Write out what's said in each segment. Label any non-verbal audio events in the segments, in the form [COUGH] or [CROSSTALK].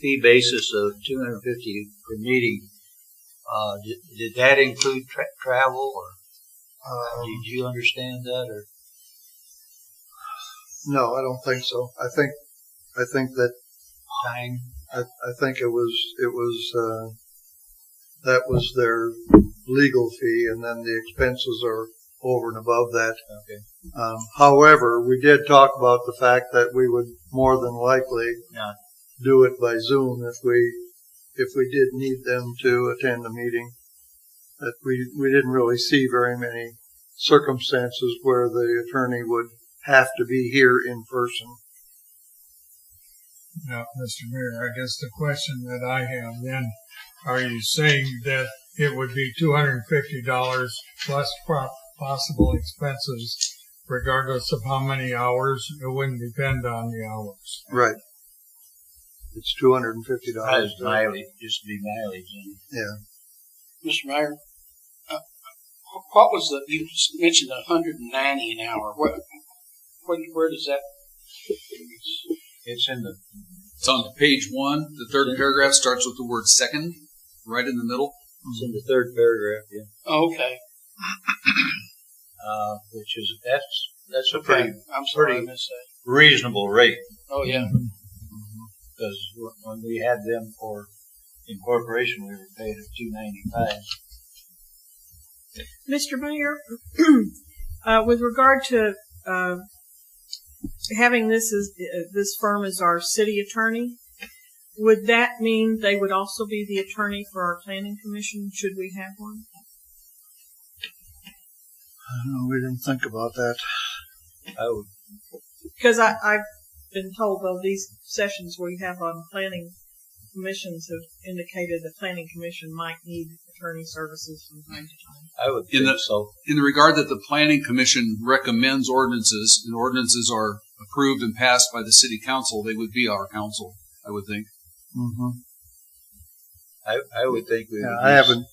fee basis of two hundred and fifty per meeting, uh, did, did that include tra- travel or Um, did you understand that or? no, I don't think so. I think, I think that, Time. I, I think it was, it was, uh, that was their legal fee and then the expenses are over and above that. Okay. Um, however, we did talk about the fact that we would more than likely Yeah. do it by Zoom if we if we did need them to attend a meeting. That we we didn't really see very many circumstances where the attorney would have to be here in person. Now, Mr. Mayor, I guess the question that I have then, are you saying that it would be two hundred and fifty dollars plus pro- possible expenses regardless of how many hours? It wouldn't depend on the hours. Right. It's two hundred and fifty dollars. Mileage, mileage, just be mileage and Mr. Mayor, uh, what was the, you just mentioned a hundred and ninety an hour. What, what, where does that? it's in the, It's on page one. The third paragraph starts with the word second, right in the middle. it's in the third paragraph, yeah. oh, Okay. Uh, which is, that's, that's a Okay. pretty I'm sorry I pretty- Mm-hmm. missed that. reasonable rate. Oh, yeah. Mm-hmm. Because when we had them for incorporation, we were paid at two ninety-five. Mr. Mayor, [CLEARS THROAT] uh, with regard to uh, having this as uh, this firm as our city attorney, would that mean they would also be the attorney for our planning commission? Should we have one? No, we didn't think about that. I would, Because I, I've been told though these sessions we have on planning commissions have indicated the planning commission might need attorney services from time to time. I would think In the- so. In the regard that the Planning Commission recommends ordinances, and ordinances are approved and passed by the City Council, they would be our council, I would think. Mm-hmm. I, I would think we. Yeah, would I use- haven't,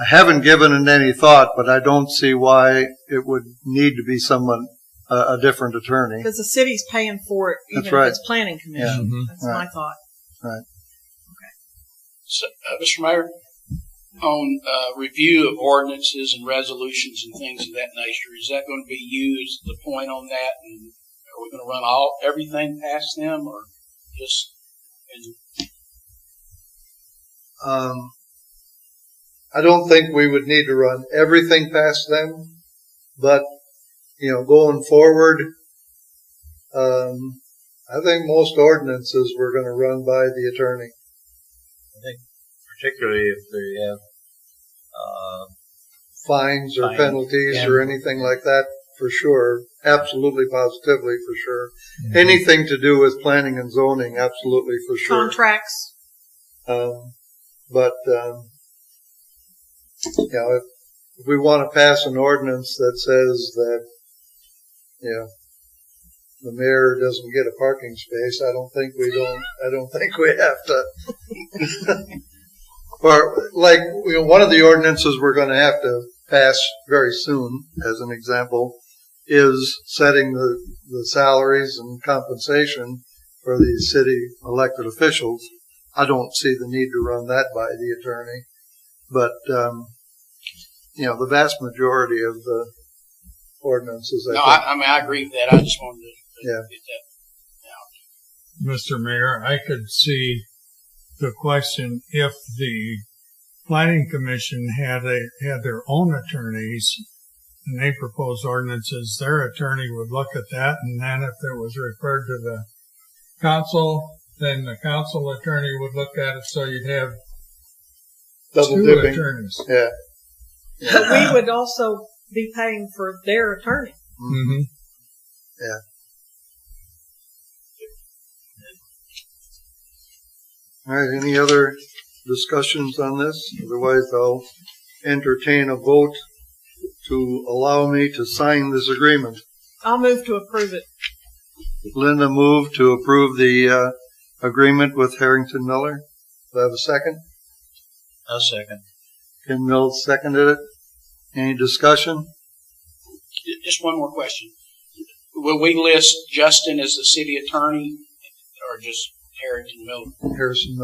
I haven't given it any thought, but I don't see why it would need to be someone, a, a different attorney. Because the city's paying for it, even That's if right. Mm-hmm. it's planning commission. That's my thought. So, uh, Mr. Mayor, on, uh, review of ordinances and resolutions and things of that nature, is that going to be used, the point on that? And are we going to run all, everything past them or just, and Um, I don't think we would need to run everything past them, but, you know, going forward, um, I think most ordinances we're gonna run by the attorney. Particularly if they have, uh, Fines or Fines, penalties or yeah. anything like that, for sure. Absolutely positively, for sure. Mm-hmm. Anything to do with planning and zoning, absolutely, for sure. Contracts, Um, but, um, you know, if, if we want to pass an ordinance that says that, you know, the mayor doesn't get a parking space, I don't think we don't, I don't [LAUGHS] think we have to. [LAUGHS] Or, like, you know, one of the ordinances we're going to have to pass very soon, as an example, is setting the, the salaries and compensation for the city elected officials. I don't see the need to run that by the attorney. But, um, you know, the vast majority of the ordinances, No, I I, I mean, I agree with that. I just wanted to Yeah. get that Mr. Mayor, I could see the question if the planning commission had a, had their own attorneys and they proposed ordinances, their attorney would look at that and then if it was referred to the council, then the council attorney would look at it, so you'd have think double two dipping. attorneys. Yeah. But we would also be paying for their attorney. Mm-hmm. All right, any other discussions on this? Otherwise, I'll entertain a vote to allow me to sign this agreement. I'll move to approve it. Linda moved to approve the uh, agreement with Harrington Miller. Do I have a second? a second. Ken Mills seconded it. Any discussion? J- Just one more question. Will we list Justin as the city attorney or just Harrington Miller? Harrison